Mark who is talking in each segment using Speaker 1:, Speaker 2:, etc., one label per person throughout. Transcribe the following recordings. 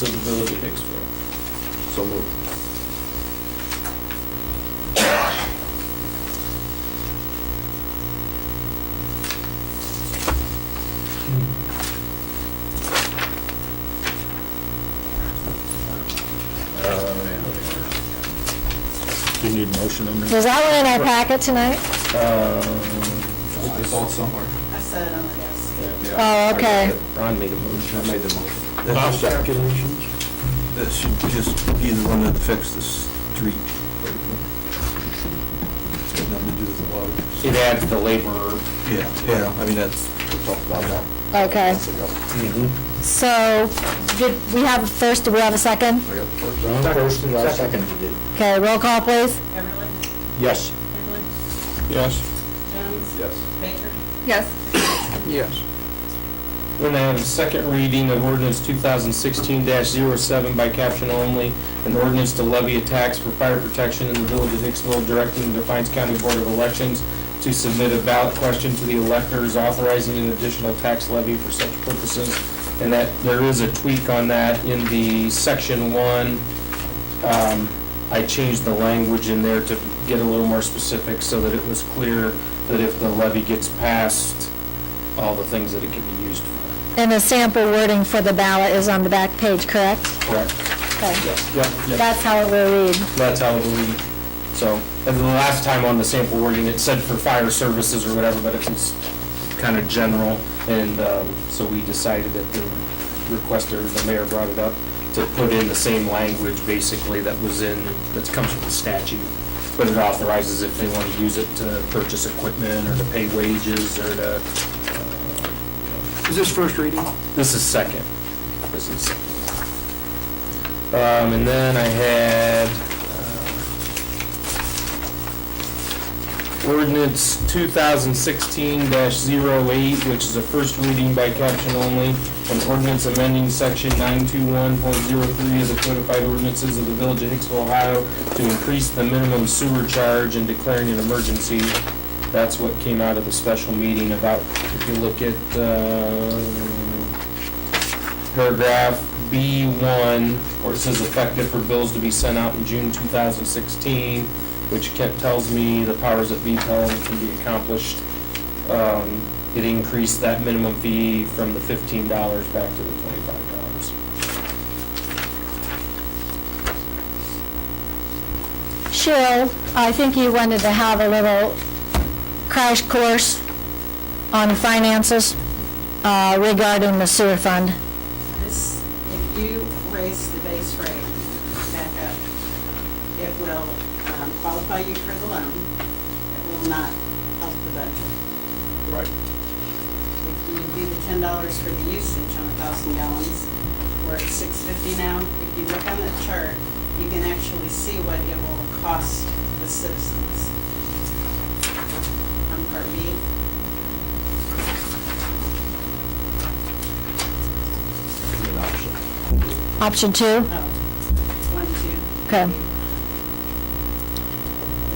Speaker 1: to the village of Hicksville.
Speaker 2: So moved.
Speaker 3: Do you need a motion on that?
Speaker 4: Was that one in our packet
Speaker 1: I
Speaker 4: tonight?
Speaker 1: saw it somewhere.
Speaker 5: I set it on my desk.
Speaker 4: Oh, okay.
Speaker 2: Ron made a motion. I made the motion.
Speaker 3: I'll second.
Speaker 6: That should just be the one that affects the street. It's got nothing to do with the water.
Speaker 1: It adds the labor.
Speaker 6: Yeah, yeah, I mean, that's,
Speaker 4: Okay.
Speaker 2: Mm-hmm.
Speaker 4: So, did we have a first, do we have a second?
Speaker 2: Ron first, and I seconded it.
Speaker 4: Okay, roll call, please.
Speaker 5: Everly,
Speaker 2: Yes.
Speaker 5: Hibble,
Speaker 3: Yes.
Speaker 5: Jones,
Speaker 2: Yes.
Speaker 5: Baker.
Speaker 4: Yes.
Speaker 3: Yes.
Speaker 1: We're gonna have a second reading of ordinance two thousand sixteen 7 by caption only, an ordinance to levy a tax for fire protection in the village of Hicksville, directing the Defiance County Board of Elections to submit a ballot question to the electors authorizing an additional tax levy for such purposes. And that, there is a tweak on that in the section one. Um, I changed the language in there to get a little more specific so that it was clear that if the levy gets passed, all the things that it can be used for.
Speaker 4: And the sample wording for the ballot is on the back page, correct?
Speaker 1: Correct.
Speaker 4: Okay.
Speaker 1: Yep, yep.
Speaker 4: That's how it will read.
Speaker 1: That's how it will be. So, and the last time on the sample wording, it said for fire services or whatever, but it was kind of general. And um, so we decided that the requester, the mayor brought it up, to put in the same language basically that was in, that comes from the statute. But it authorizes if they want to use it to purchase equipment or to pay wages or to. uh, Is this first reading? This is second. This is second. Um, and then I had, uh, ordinance two thousand sixteen 8 which is a first reading by caption only, an ordinance amending section nine two one point zero three of the codified ordinances of the village of Hicksville, Ohio, to increase the minimum sewer charge and declaring an emergency. That's what came out of the special meeting about, if you look at, uh, paragraph B1, where it says effective for bills to be sent out in June 2016, which Kent tells me the powers that be tell him can be accomplished. Um, It increased that minimum fee from the $15 back to the $25.
Speaker 4: Cheryl, I think you wanted to have a little crash course on finances uh, regarding the sewer fund.
Speaker 5: This, if you raise the base rate back up, it will um, qualify you for the loan. It will not help the budget.
Speaker 2: Right.
Speaker 5: If you do the ten dollars for the usage on a thousand gallons, we're at six fifty now. If you look on the chart, you can actually see what it will cost the citizens. On part B.
Speaker 2: An option.
Speaker 4: Option two?
Speaker 5: Oh, one, two.
Speaker 4: Okay.
Speaker 5: three.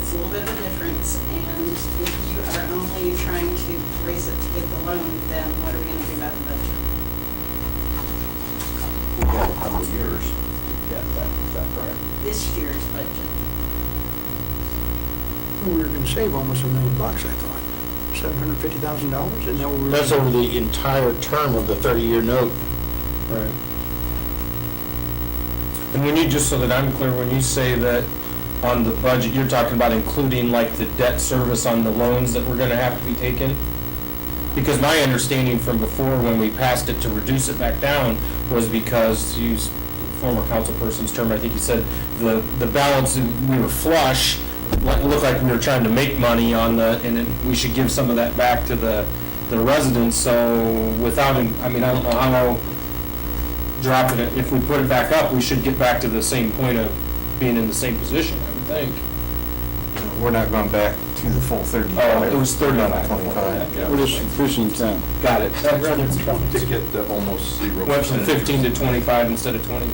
Speaker 5: It's a little bit of a difference, and if you are only trying to raise it to get the loan, then what are we gonna do about the budget?
Speaker 2: We have a couple of years to get that, is that correct?
Speaker 5: This year's budget,
Speaker 7: We were gonna save almost a million bucks, I thought. Seven hundred fifty thousand dollars, and that we were.
Speaker 3: That's over the entire term of the thirty-year note.
Speaker 1: Right. And when you, just so that I'm clear, when you say that on the budget, you're talking about including like the debt service on the loans that were gonna have to be taken? Because my understanding from before, when we passed it to reduce it back down, was because, to use former councilperson's term, I think you said, the, the balance, we were flush, like- it looked like we were trying to make money on the, and then we should give some of that back to the, the residents, so without, I mean, I don't know how dropping it, if we put it back up, we should get back to the same point of being in the same position, I would think.
Speaker 6: we're not going back to the full Uh, thirty.
Speaker 1: Oh, it was thirty-nine.
Speaker 6: Twenty-five.
Speaker 1: Yeah.
Speaker 3: We're just increasing the time.
Speaker 1: Got it. That reference
Speaker 2: To
Speaker 1: probably
Speaker 2: get the almost zero.
Speaker 1: Went from
Speaker 2: percentage.
Speaker 1: fifteen to twenty-five instead of twenty,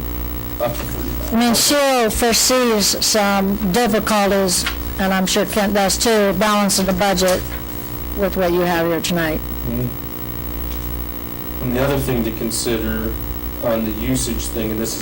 Speaker 1: up to thirty-five.
Speaker 4: I mean, Cheryl foresees some difficulties, and I'm sure Kent does too, balancing the budget with what you have here tonight.
Speaker 1: And the other thing to consider on the usage thing, and this is